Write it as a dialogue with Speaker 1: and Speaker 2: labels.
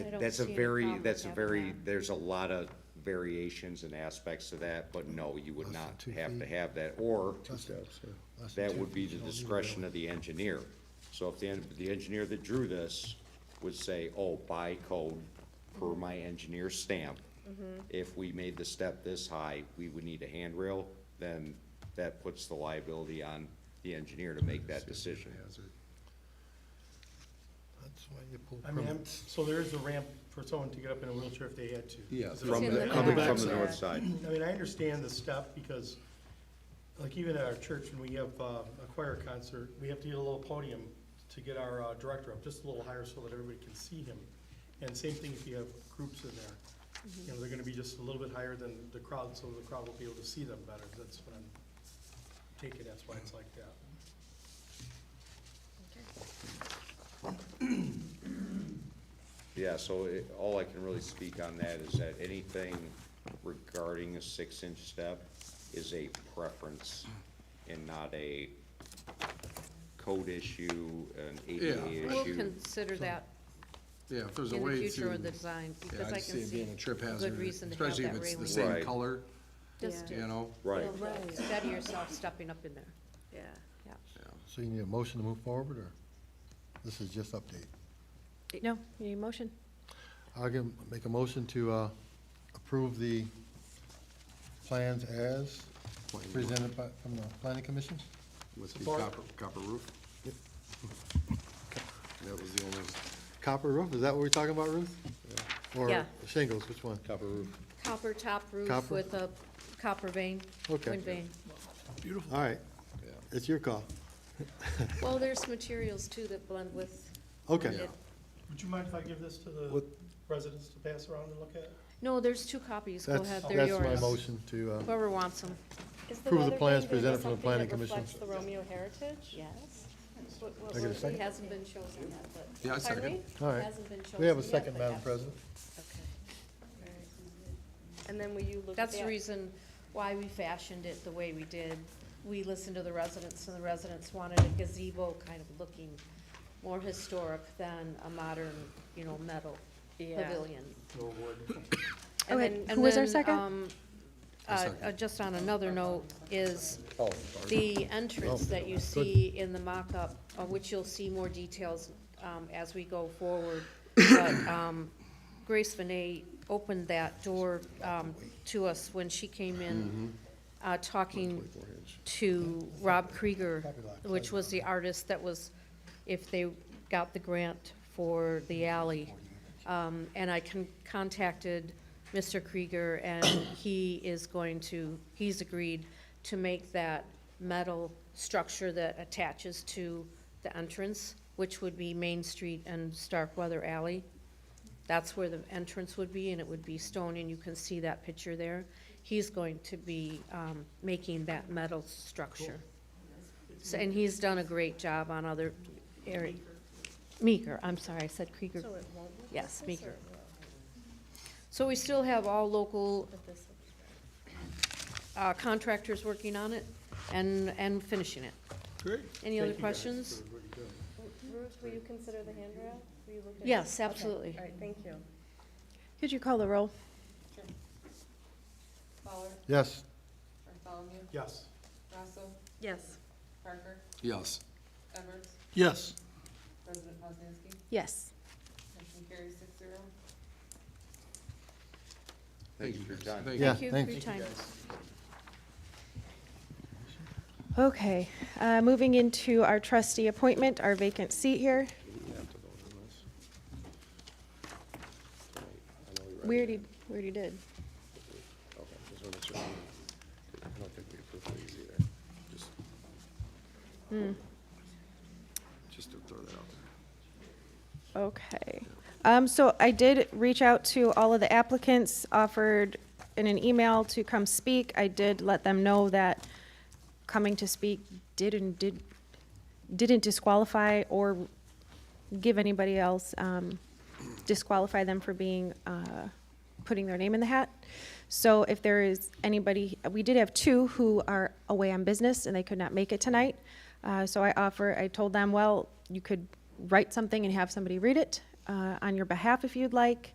Speaker 1: I don't
Speaker 2: That's a
Speaker 1: see any
Speaker 2: very,
Speaker 1: problem
Speaker 2: that's a
Speaker 1: with
Speaker 2: very,
Speaker 1: having that.
Speaker 2: there's a lot of variations and aspects to that, but no, you would
Speaker 3: than
Speaker 2: not
Speaker 3: two
Speaker 2: have to
Speaker 3: feet.
Speaker 2: have that, or
Speaker 3: Two steps, yeah. Less than
Speaker 2: that
Speaker 3: two
Speaker 2: would be
Speaker 3: feet,
Speaker 2: the
Speaker 3: you don't need a
Speaker 2: discretion
Speaker 3: rail.
Speaker 2: of the engineer. So if the, en- the engineer that drew this would say, oh, by code, per my engineer's stamp,
Speaker 1: Mm-hmm.
Speaker 2: if we made the step this high, we would need a handrail, then that puts the liability on the engineer to make that decision.
Speaker 3: Hazard. That's why you pull
Speaker 4: I mean, I'm-
Speaker 3: permits.
Speaker 4: so there is a ramp for someone to get up in a wheelchair if they had to.
Speaker 3: Yeah,
Speaker 4: Is there-
Speaker 2: From
Speaker 1: in
Speaker 2: the,
Speaker 1: the
Speaker 2: coming
Speaker 1: back.
Speaker 2: from the north side.
Speaker 4: I mean, I understand the step because, like, even at our church, when we have um, a choir concert, we have to get a little podium to get our uh, director up, just a little higher so that everybody can see him. And same thing if you have groups in there. You know, they're gonna be just a little bit higher than the crowd, so the crowd will be able to see them better. That's what I'm taking, that's why it's like that.
Speaker 2: Yeah, so it, all I can really speak on that is that anything regarding a six-inch step is a preference and not a code issue, an
Speaker 3: Yeah.
Speaker 2: ADA
Speaker 1: We'll
Speaker 2: issue.
Speaker 1: consider that
Speaker 3: Yeah, if there's a
Speaker 1: in the
Speaker 3: way
Speaker 1: future
Speaker 3: to,
Speaker 1: with the design,
Speaker 3: yeah,
Speaker 1: because
Speaker 3: I
Speaker 1: I
Speaker 3: see
Speaker 1: can
Speaker 3: it
Speaker 1: see
Speaker 3: being a trip
Speaker 1: a
Speaker 3: hazard,
Speaker 1: good reason to have
Speaker 3: especially if
Speaker 1: that
Speaker 3: it's the
Speaker 1: railing.
Speaker 2: Right.
Speaker 3: same color,
Speaker 1: Just
Speaker 3: you
Speaker 1: to
Speaker 3: know?
Speaker 2: Right,
Speaker 1: steady yourself stepping up in there,
Speaker 5: Yeah.
Speaker 1: yeah.
Speaker 3: So you need a motion to move forward, or this is just update?
Speaker 1: No, you need a motion?
Speaker 3: I'll give, make a motion to, uh, approve the plans as presented by, from the planning commission?
Speaker 6: With the
Speaker 4: Support.
Speaker 6: copper, copper roof? That was the only,
Speaker 3: Copper roof, is that what we're talking about, Ruth? Or
Speaker 1: Yeah.
Speaker 3: shingles, which one? Copper roof.
Speaker 1: Copper top roof
Speaker 3: Copper?
Speaker 1: with a copper vein,
Speaker 3: Okay.
Speaker 1: wind vein.
Speaker 3: Beautiful. All right, it's your call.
Speaker 1: Well, there's materials too that blend with.
Speaker 3: Okay.
Speaker 4: Would you mind if I give this to the
Speaker 3: What-
Speaker 4: residents to pass around and look at?
Speaker 1: No, there's two copies, go
Speaker 3: That's,
Speaker 1: ahead, they're
Speaker 3: that's my
Speaker 1: yours.
Speaker 3: motion to, uh,
Speaker 1: Whoever wants them.
Speaker 3: Approve the plans presented from the planning commission.
Speaker 5: the Romeo heritage? Yes. What- what-
Speaker 3: I get a second?
Speaker 1: Hasn't been chosen yet, but.
Speaker 6: yeah, I second.
Speaker 3: all right.
Speaker 1: Hasn't been chosen.
Speaker 3: We have a
Speaker 1: yet,
Speaker 3: second,
Speaker 1: but
Speaker 3: Madam
Speaker 1: yes.
Speaker 3: President.
Speaker 5: And then will you look at
Speaker 1: That's
Speaker 5: that?
Speaker 1: the reason why we fashioned it the way we did. We listened to the residents, and the residents wanted a gazebo kind of looking more historic than a modern, you know, metal
Speaker 5: Yeah.
Speaker 1: pavilion.
Speaker 4: Or would?
Speaker 1: And
Speaker 7: Okay,
Speaker 1: then-
Speaker 7: Oh, who
Speaker 1: and
Speaker 7: was our
Speaker 1: then,
Speaker 7: second?
Speaker 1: um, uh, uh, Just on another note, is the entrance that you see in the mock-up, of which you'll see more details um, as we go forward. But um, Grace Vinay opened that door um, to us when she came in, uh, talking to Rob Krieger, which was the artist that was, if they got the grant for the alley. Um, and I con- contacted Mr. Krieger, and he is going to, he's agreed to make that metal structure that attaches to the entrance, which would be Main Street and Starkweather Alley. That's where the entrance would be, and it would be stone, and you can see that picture there. He's going to be, um, making that metal structure. So, and he's done a great job on other area. Meeker, I'm sorry, I said Krieger.
Speaker 5: So it won't look
Speaker 1: Yes,
Speaker 5: like this,
Speaker 1: Meeker.
Speaker 5: or it will?
Speaker 1: So we still have all local
Speaker 5: But this will-
Speaker 1: uh, contractors working on it and, and finishing it.
Speaker 3: Great.
Speaker 1: Any other questions?
Speaker 5: Ruth, will you consider the handrail? Will you look at it?
Speaker 1: Yes,
Speaker 5: Okay,
Speaker 1: absolutely.
Speaker 5: All right, thank you.
Speaker 7: Could you call the roll?
Speaker 3: Yes,
Speaker 4: Yes.
Speaker 5: Yes.
Speaker 6: Yes.
Speaker 3: yes.
Speaker 7: Yes.
Speaker 2: thank you for your time.
Speaker 6: Thank you.
Speaker 3: Yeah,
Speaker 1: Thank you for
Speaker 3: thanks.
Speaker 1: your time.
Speaker 7: Okay, uh, moving into our trustee appointment, our vacant seat here. We already, we already did.
Speaker 6: Okay, just wanna make sure. I don't think we approved these either. Just-
Speaker 7: Hmm,
Speaker 6: Just to throw that out there.
Speaker 7: Okay. Um, so I did reach out to all of the applicants, offered in an email to come speak. I did let them know that coming to speak didn't, did, didn't disqualify or give anybody else, um, disqualify them for being, uh, putting their name in the hat. So if there is anybody, we did have two who are away on business and they could not make it tonight. Uh, so I offer, I told them, well, you could write something and have somebody read it. uh, on your behalf if you'd like.